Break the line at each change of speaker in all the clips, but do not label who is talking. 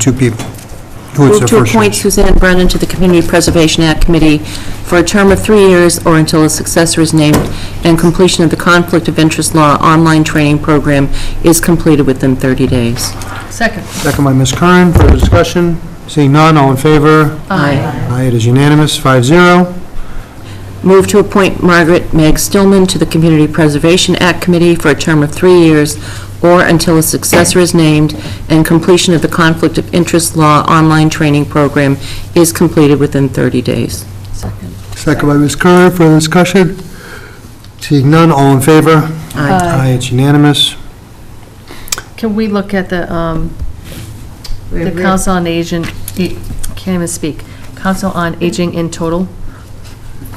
two people. Who is the
Move to
first?
appoint Suzanne Brennan to the Community Preservation Act Committee for a term of three years or until a successor is named and completion of the Conflict of Interest Law online training program is completed within 30 days.
Second.
Second by Ms. Curran, further discussion? Seeing none, all in favor?
Aye.
Aye, it is unanimous, five zero.
Move to appoint Margaret Meg Stillman to the Community Preservation Act Committee for a term of three years or until a successor is named and completion of the Conflict of Interest Law online training program is completed within 30 days.
Second.
Second by Ms. Curran, further discussion? Seeing none, all in favor?
Aye.
Aye, it's unanimous.
Can we look at the, um, the Council on Aging, e- can't even speak, Council on Aging in total?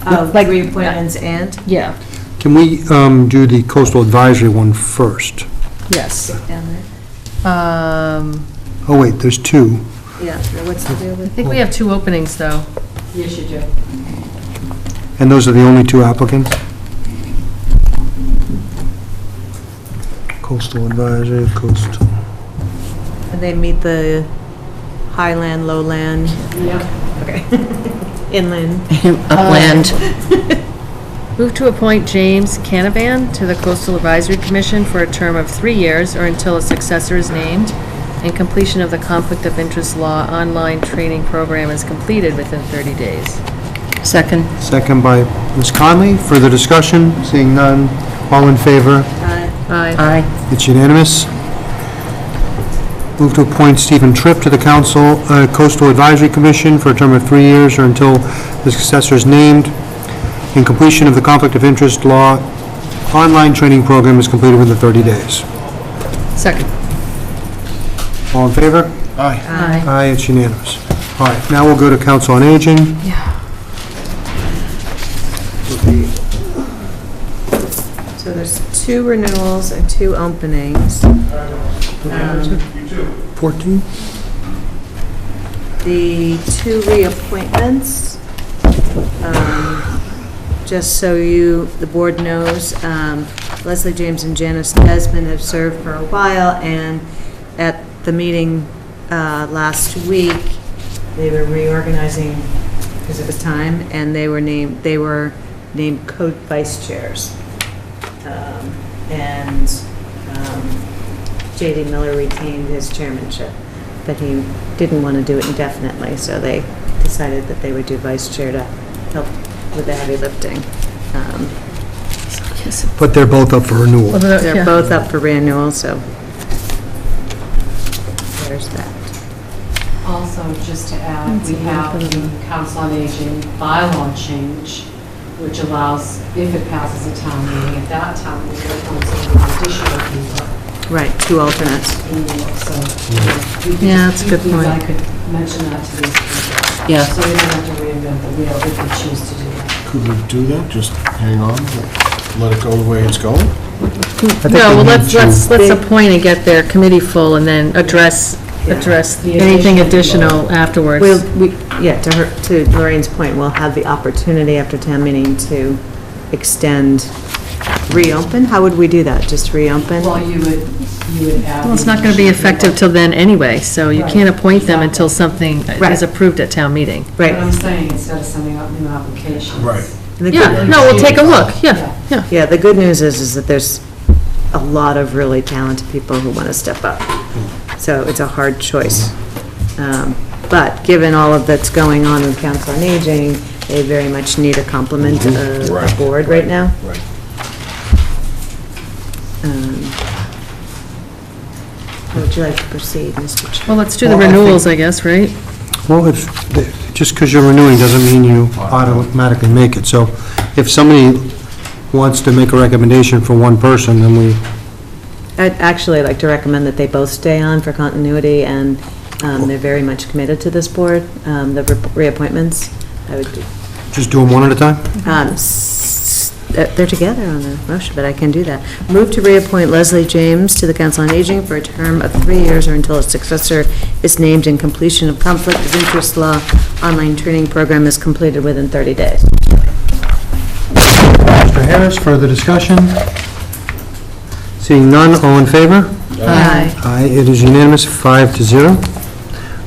Uh, Three appointments and?
Yeah.
Can we um, do the coastal advisory one first?
Yes. Um,
Oh, wait, there's two.
Yeah, now what's the deal
I
with?
think we have two openings, though.
Yes, you do.
And those are the only two applicants? Coastal Advisory, Coastal.
And they meet the highland, lowland? Yeah. Okay. Inland.
Upland.
Move to appoint James Canavan to the Coastal Advisory Commission for a term of three years or until a successor is named and completion of the Conflict of Interest Law online training program is completed within 30 days.
Second.
Second by Ms. Conley. Further discussion? Seeing none. All in favor?
Uh,
Aye.
Aye.
It's unanimous. Move to appoint Stephen Tripp to the Council uh, Coastal Advisory Commission for a term of three years or until the successor is named. And completion of the Conflict of Interest Law online training program is completed within 30 days.
Second.
All in favor? Aye. Aye, it's unanimous. All right, now we'll go to Council on Aging.
So there's two renewals and two openings. Um,
14?
The two reappointments, um, just so you, the board knows, um, Leslie James and Janice Desmond have served for a while, and at the meeting uh, last week, they were reorganizing because it was time, and they were named, they were named co-vice chairs. Um, And um, J.D. Miller retained his chairmanship, but he didn't want to do it indefinitely, so they decided that they would do vice chair to help with the heavy lifting. Um,
But they're both up for renewal.
Oh,
They're both up for renewal, so there's that.
Also, just to add, we have the Council on Aging bylaw change, which allows, if it passes a town meeting, at that town meeting, it appoints an additional people.
Right, two alternates.
in the work, So we could
Yeah, that's
just-
a good
we-
point.
I could mention that to these people.
Yeah.
So we don't have to reinvent the wheel if we choose to do that.
Could we do that? Just hang on, let it go the way it's going?
I think
No,
we
well,
need
let's,
to-
let's, let's appoint and get their committee full and then address, address
The
anything
additional.
additional afterwards.
We'll, we, yeah, to her, to Lorraine's point, we'll have the opportunity after town meeting to extend, reopen? How would we do that? Just reopen?
Well, you would, you would add.
Well, it's not going to be effective till then anyway, so you can't appoint them until something
Right.
is approved at town meeting.
But I'm
Right,
saying, instead of sending out new applications.
Right.
The good-
Yeah, no, we'll take a look, yeah, yeah.
Yeah, the good news is, is that there's a lot of really talented people who want to step up. So it's a hard choice. Um, But given all of that's going on with Council on Aging, they very much need a complement of a
Mm-hmm. Right,
board right now.
Right.
Um, How would you like to proceed, Mr. Chair?
Well, let's do the
Well, I think-
renewals, I guess, right?
Well, if, just because you're renewing doesn't mean you automatically make it. So if somebody wants to make a recommendation for one person, then we,
I'd actually like to recommend that they both stay on for continuity, and um, they're very much committed to this board, um, the re- reappointments. I would do
just do them one at a time?
Um, s- They're they're together on the motion, but I can do that. Move to reappoint Leslie James to the Council on Aging for a term of three years or until a successor is named and completion of Conflict of Interest Law online training program is completed within 30 days.
Mr. Harris, further discussion? Seeing none, all in favor?
Aye.
Aye, it is unanimous, five to zero.